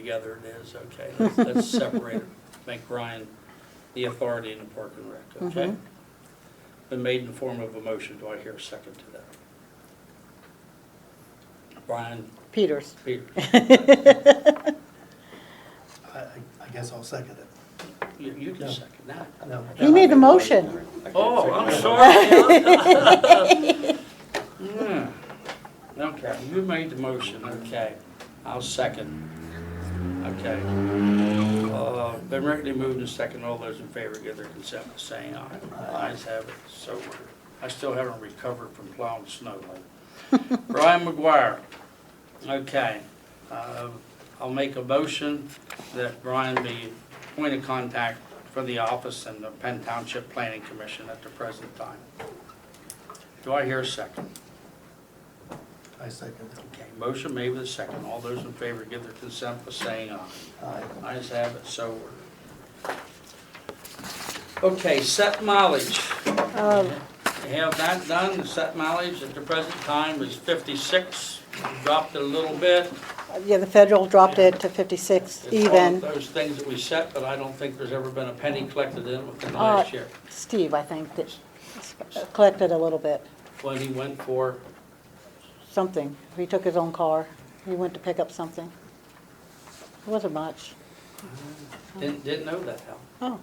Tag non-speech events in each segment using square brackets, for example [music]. together it is, okay? Let's- Let's separate it, make Brian the authority in the Park and Rec, okay? Been made in the form of a motion, do I hear a second to that? Brian Peters. Peters, [laughs] I, I- I guess I'll second it. you you can No. second that. No. You made the motion. Oh, I'm sorry. [laughs] Hmm. Okay, you made the motion, okay. I'll second. Okay. Uh, Been regularly moved and second. All those in favor give their consent by saying aye. Ayes have it, so ordered. I still haven't recovered from plowing snow. [laughs] Brian McGuire. Okay. Uh, I'll make a motion that Brian be point of contact for the office and the Penn Township Planning Commission at the present time. Do I hear a second? I second Okay, motion made with a second. All those in favor give their consent by saying aye. it. Aye. Ayes have it, so ordered. Okay, set mileage. Oh, We have that done. The set mileage at the present time is 56. Dropped it a little bit. Yeah, the federal dropped it to It's 56 all of even. those things that we set, but I don't think there's ever been a penny collected in within the Uh, last year. Steve, I think, that collected a little bit, When he went for, something. He took his own car. He went to pick up something. It wasn't much. didn't, didn't know that, Hal. Oh.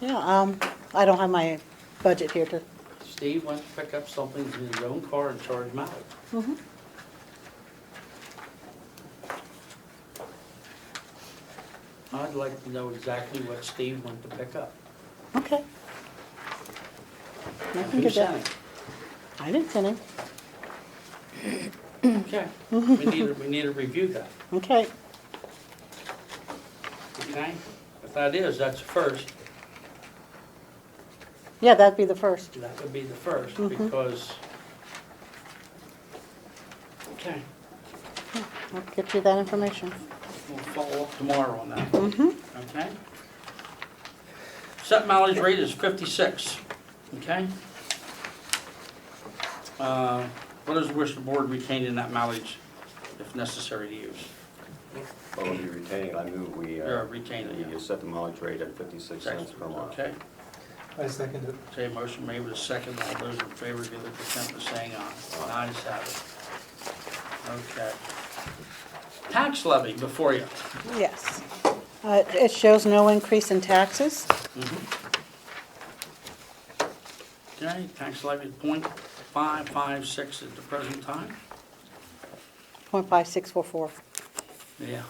Yeah, um, I don't have my budget here to, Steve went to pick up something in his own car and charged mileage. Mhm. I'd like to know exactly what Steve went to pick up. okay. I and can who get sent that. I didn't send him. it. Okay, we need, to- we need to review that, Okay, okay? If that is, that's first, yeah, that'd be the first. that would be the first, Mhm. because. Okay, I'll get you that information. we'll follow up tomorrow on that. Mm-hmm. Okay? Set mileage rate is 56, okay? Uh, What is the wish of the board retaining that mileage if necessary to use? Well, if you're retaining, it, I move we. uh, Yeah, retain it, we, yeah. uh, Set the mileage rate at 56 cents per mile. Okay, I second it. say motion made with a second, all those in favor give their consent by saying aye. Ayes have it. Okay. Tax levy before you. Yes. Uh, It shows no increase in taxes. Mm-hmm. Okay, tax levy .556 at the present time? 0.5644. Yeah.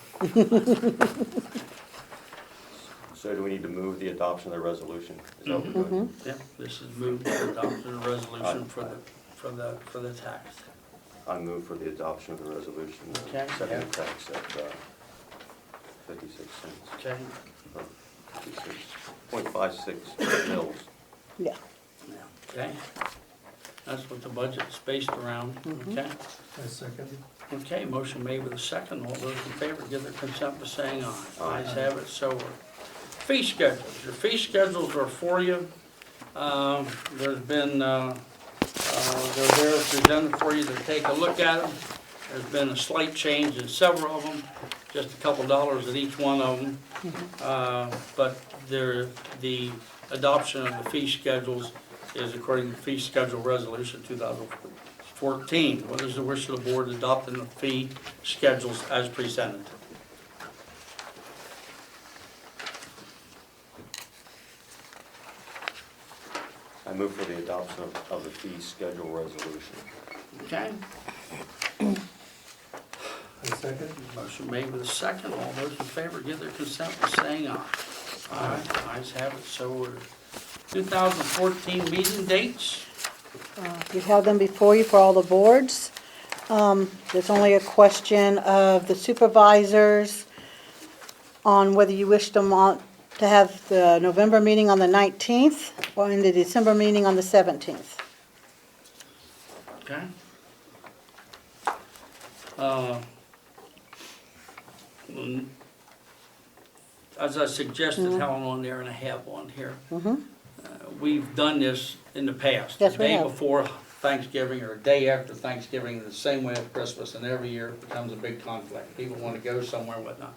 So do we need to move the adoption of the resolution? Is that what we're doing? Yeah, this is moved to adopt the resolution for the, for the, for the tax. I move for the adoption of the resolution. uh, Okay. Setting the tax at uh, 56 cents, Okay, uh, 56.56 mils. Yeah. yeah, okay. That's what the budget's based around, okay? I second it. Okay, motion made with a second. All those in favor give their consent by saying aye. Aye. Ayes have it, so ordered. Fee schedules, your fee schedules are for you. Um, There's been, uh, uh, they're there presented for you to take a look at them. There's been a slight change in several of them, just a couple dollars at each one of them. Uh, But there, the adoption of the fee schedules is according to Fee Schedule Resolution 2014. What is the wish of the board adopting the fee schedules as presented? I move for the adoption of- of the fee schedule resolution. Okay, I second it. motion made with a second. All those in favor give their consent by saying aye. Aye, ayes have it, so ordered. 2014 meeting dates? Uh, You have them before you for all the boards. Um, There's only a question of the supervisors on whether you wish them on, to have the November meeting on the 19th or in the December meeting on the 17th. Okay. Uh, mm, As I suggested, Helen, on there, Mm-hmm. and I have one here. Uh, We've done this in the past. Yes, we The day have. before Thanksgiving. Thanksgiving or a day after Thanksgiving, the same way of Christmas, and every year it becomes a big conflict. People want to go somewhere and whatnot.